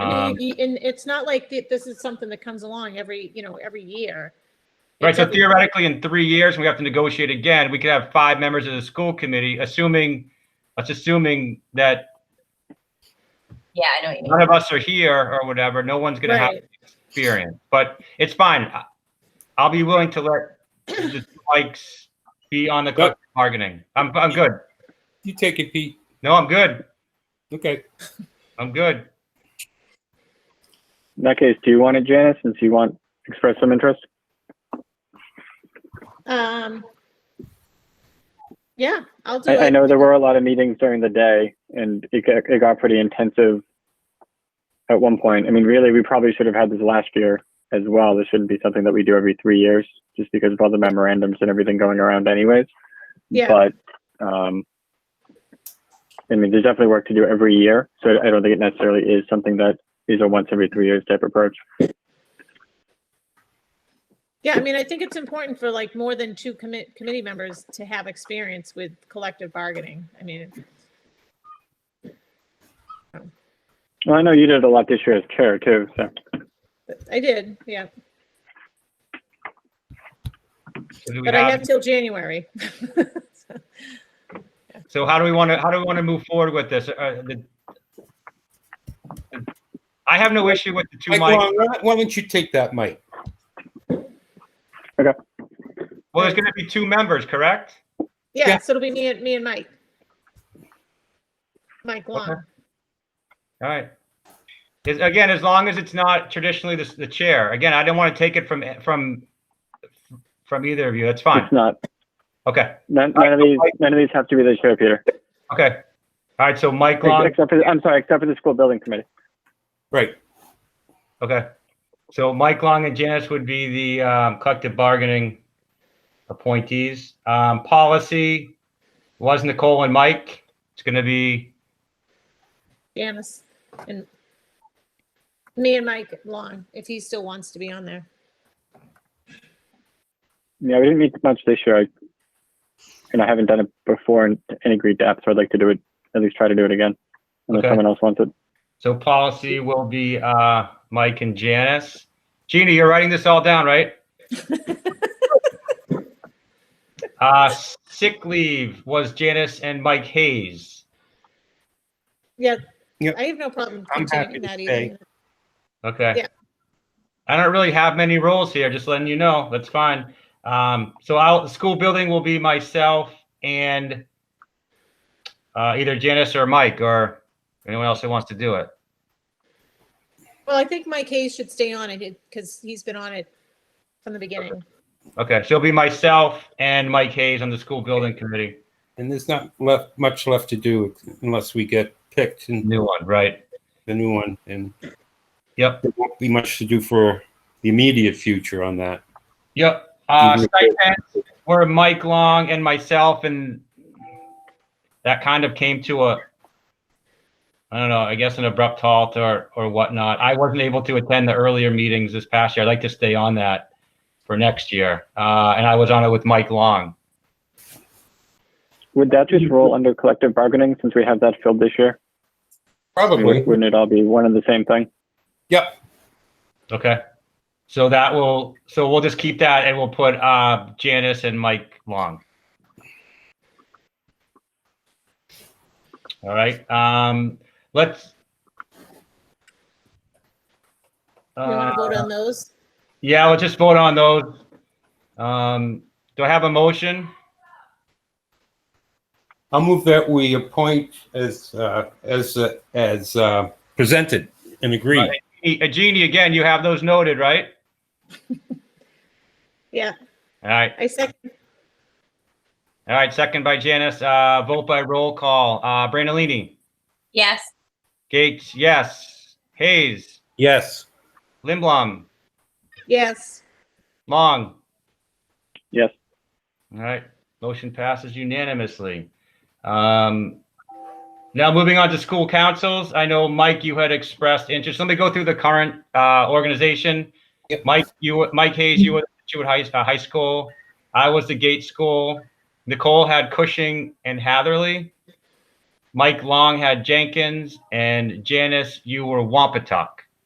know, Um, y- and it's not like th- this is something that comes along every, you know, every year. Right, It's so every- theoretically, in three years, we have to negotiate again. We could have five members of the school committee, assuming, that's assuming that Yeah, I know what you mean. none of us are here or whatever. No one's gonna have Right. experience, but it's fine. I- I'll be willing to let the Spikes be on the collective bargaining. I'm, I'm good. You take it, Pete. No, I'm good. Okay. I'm good. In that case, do you want it, Janice, since you want, express some interest? Um, yeah, I'll do I, I it. know there were a lot of meetings during the day and it got, it got pretty intensive at one point. I mean, really, we probably should have had this last year as well. This shouldn't be something that we do every three years just because of all the memorandums and everything going around anyways. Yeah, But, um, I mean, there's definitely work to do every year. So I don't think it necessarily is something that is a once every three years type approach. yeah, I mean, I think it's important for like more than two commit, committee members to have experience with collective bargaining. I mean, Well, I know you did a lot this year as chair too, so. I did, yeah, So do we but I have have, till January. so how do we want to, how do we want to move forward with this? Uh, the- I have no issue with the two mics. Mike, Long, why why don't you take that, Mike? Well, there's gonna be two members, correct? Yeah, Yeah. so it'll be me and, me and Mike. Mike Long. All right. Is- Again, as long as it's not traditionally the, the chair. Again, I don't want to take it from, from, from either of you. That's fine. It's not, Okay, none, none of these, none of these have to be the chair, Peter. okay. All right, so Mike Ex- Long, Except for, I'm sorry, except for the school building committee. Right. okay. So Mike Long and Janice would be the um, collective bargaining appointees. Um, Policy was Nicole and Mike. It's going to be, Janice and me and Mike Long, if he still wants to be on there. Yeah, we didn't meet much this year. I, and I haven't done it before in any great depth, so I'd like to do it, at least try to do it again. Unless Okay. someone else wants it. so policy will be uh, Mike and Janice. Gina, you're writing this all down, right? Uh, Sick leave was Janice and Mike Hayes. Yeah, Yep. I have no problem I'm happy continuing to that stay. either. Okay. Yeah. I don't really have many roles here, just letting you know. That's fine. Um, so I'll, school building will be myself and uh, either Janice or Mike or anyone else that wants to do it. Well, I think Mike Hayes should stay on it because he's been on it from the beginning. Okay, so it'll be myself and Mike Hayes on the school building committee. And there's not left much left to do unless we get picked and New one, right? the new one. And Yep, there won't be much to do for the immediate future on that. yep. Uh, Mhm. stipends were Mike Long and myself, and that kind of came to a, I don't know, I guess an abrupt halt or or whatnot. I wasn't able to attend the earlier meetings this past year. I'd like to stay on that for next year, uh, and I was on it with Mike Long. Would that just roll under collective bargaining since we have that filled this year? Probably. Would- Wouldn't it all be one and the same thing? Yep. Okay, so that will so we'll just keep that and we'll put uh, Janice and Mike Long. All right, um, let's. You want to vote Uh, on those? Yeah, we'll just vote on those. Um, do I have a motion? I'll move that we appoint as, uh, as, uh, as, uh, presented and agreed. E- uh, Jeannie, again, you have those noted, right? Yeah, All right, I second. all right, second by Janice, uh, vote by roll call, uh, Brandalini, Yes. Gates, yes, Hayes, Yes. Limblom, Yes, Long. Yes. All right, motion passes unanimously. Um, now moving on to school councils. I know, Mike, you had expressed interest. Let me go through the current, uh, organization. Yep. Mike, you, were- Mike Hayes, you were at Situate High, uh, High School. I was the Gates School. Nicole had Cushing and Hatherley. Mike Long had Jenkins and Janice, you were Wampatuck.